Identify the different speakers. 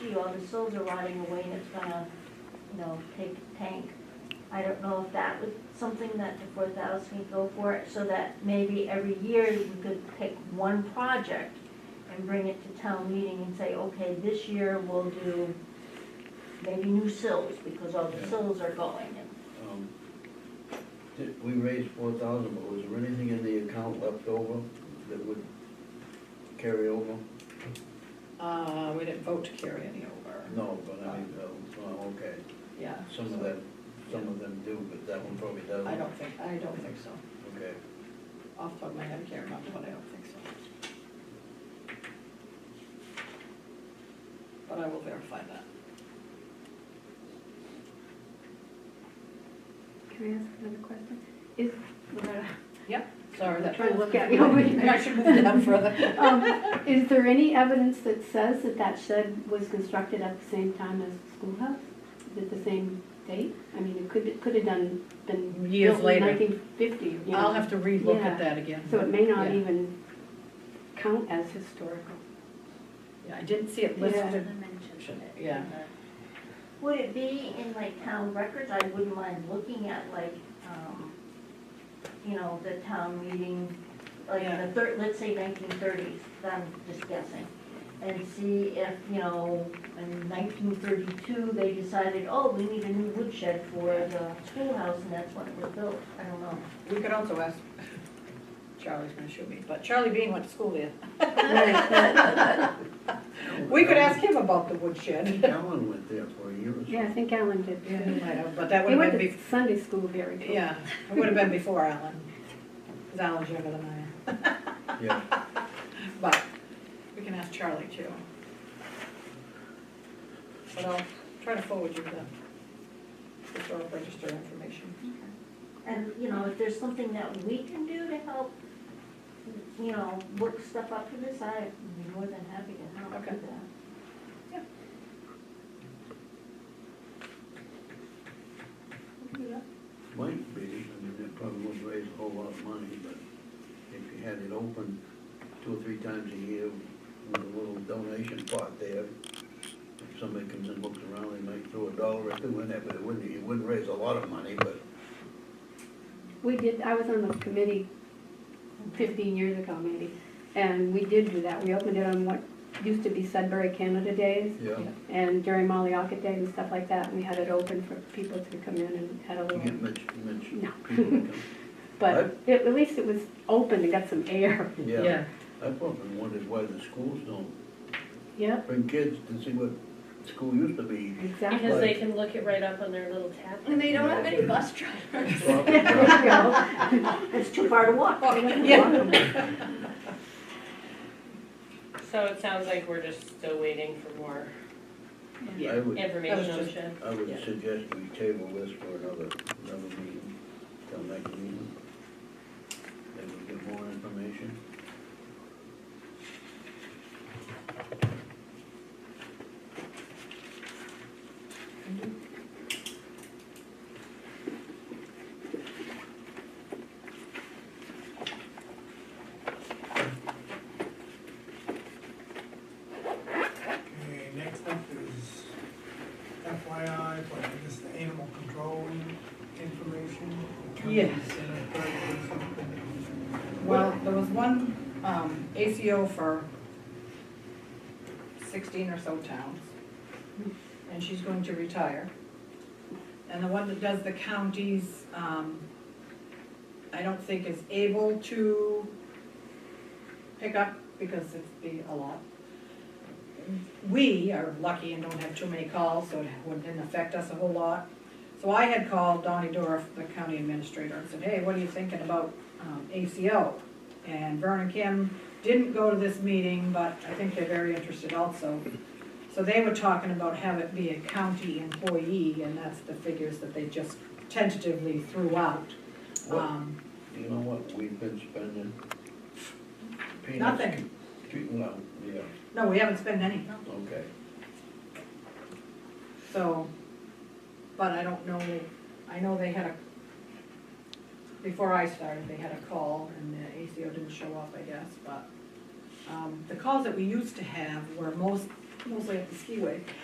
Speaker 1: all the sills are rotting away and it's gonna, you know, take tank. I don't know if that was something that the four thousand could go for, so that maybe every year we could pick one project and bring it to town meeting and say, okay, this year we'll do maybe new sills, because all the
Speaker 2: Yeah.
Speaker 1: sills are going.
Speaker 2: Um, did- We raised four thousand, but was there anything in the account left over that would carry over?
Speaker 3: Uh, we didn't vote to carry any over,
Speaker 2: No, but I mean, uh, well, okay,
Speaker 3: yeah.
Speaker 2: some of
Speaker 3: so
Speaker 2: them, some of them do, but that one probably doesn't.
Speaker 3: I don't think, I don't think so.
Speaker 2: Okay,
Speaker 3: Off the top of my head, I can't remember, but I don't think so. But I will verify that.
Speaker 4: Can I ask another question? Is, Loretta,
Speaker 3: Sorry, that.
Speaker 4: Try to look at me over here.
Speaker 3: I should move it down further.
Speaker 4: um, is there any evidence that says that that shed was constructed at the same time as the schoolhouse? At the same date? I mean, it could, it could have done, been
Speaker 3: Years
Speaker 4: built in
Speaker 3: later.
Speaker 4: nineteen fifty, you know.
Speaker 3: I'll have to relook at
Speaker 4: Yeah.
Speaker 3: that again.
Speaker 4: So it may not
Speaker 3: Yeah.
Speaker 4: even count as historical.
Speaker 3: Yeah, I didn't see it listed. Yeah.
Speaker 1: Would it be in like town records? I wouldn't mind looking at like, um, you know, the town meeting, like
Speaker 3: Yeah.
Speaker 1: the third, let's say nineteen thirties, I'm just guessing. And see if, you know, in nineteen thirty-two, they decided, oh, we need a new woodshed for the schoolhouse and that's when it was built. I don't know.
Speaker 3: We could also ask, Charlie's gonna shoot me, but Charlie Bean went to school there. We could ask him about the woodshed.
Speaker 2: Alan went there for a year or so.
Speaker 4: Yeah, I think Alan did.
Speaker 3: Yeah, he
Speaker 4: too.
Speaker 3: might have, But that
Speaker 4: They
Speaker 3: would have
Speaker 4: went
Speaker 3: been
Speaker 4: to
Speaker 3: bef,
Speaker 4: Sunday school very close.
Speaker 3: yeah, it would have been before Alan, because Alan's younger than I am.
Speaker 2: Yeah,
Speaker 3: But we can ask Charlie too. But I'll try to forward you the historic register information.
Speaker 1: And, you know, if there's something that we can do to help, you know, look stuff up to this, I'd be more than happy to help
Speaker 3: Okay.
Speaker 1: with that.
Speaker 2: might be, I mean, that probably won't raise a whole lot of money, but if you had it open two or three times a year with a little donation pot there, if somebody comes and looks around, they might throw a dollar or two in there, but it wouldn't, it wouldn't raise a lot of money, but
Speaker 4: We did, I was on the committee fifteen years ago maybe, and we did do that. We opened it on what used to be Sudbury Canada Days
Speaker 2: Yeah,
Speaker 4: and during Maliaka Day and stuff like that, and we had it open for people to come in and had a
Speaker 2: you
Speaker 4: little,
Speaker 2: get much, much
Speaker 4: No.
Speaker 2: people to come.
Speaker 4: but it- at least it was open, it got some air.
Speaker 2: Yeah, I've often wondered why the schools don't
Speaker 4: Yep,
Speaker 2: bring kids to see what school used to be.
Speaker 4: exactly.
Speaker 5: Because they can look it right up on their little tablet.
Speaker 2: they don't have any
Speaker 6: bus drivers.
Speaker 4: There you go.
Speaker 1: It's too far to walk.
Speaker 3: Yeah.
Speaker 5: So it sounds like we're just still waiting for more
Speaker 2: I would,
Speaker 5: information on the
Speaker 3: just-
Speaker 5: shed.
Speaker 2: I would
Speaker 3: Yeah.
Speaker 2: suggest we table this for another, another meeting, till next meeting. Then we get more information.
Speaker 6: Okay, next up is FYI for, I guess, the animal control information.
Speaker 3: Yes.
Speaker 6: And a third is something.
Speaker 3: Well, there was one, um, ACO for sixteen or so towns, and she's going to retire. And the one that does the counties, um, I don't think is able to pick up because it'd be a lot. We are lucky and don't have too many calls, so it wouldn't affect us a whole lot. So I had called Donnie Dorff, the county administrator, and said, hey, what are you thinking about um, ACO? And Vernon Kim didn't go to this meeting, but I think they're very interested also. So they were talking about have it be a county employee, and that's the figures that they just tentatively threw out. Um,
Speaker 2: You know what, we've been spending. peanuts-
Speaker 3: Nothing.
Speaker 2: Treating, no, yeah,
Speaker 3: No, we haven't spent any,
Speaker 2: okay.
Speaker 3: so, but I don't know, I know they had a, before I started, they had a call and the ACO didn't show up, I guess, but, um, the calls that we used to have were most, mostly at the skiway.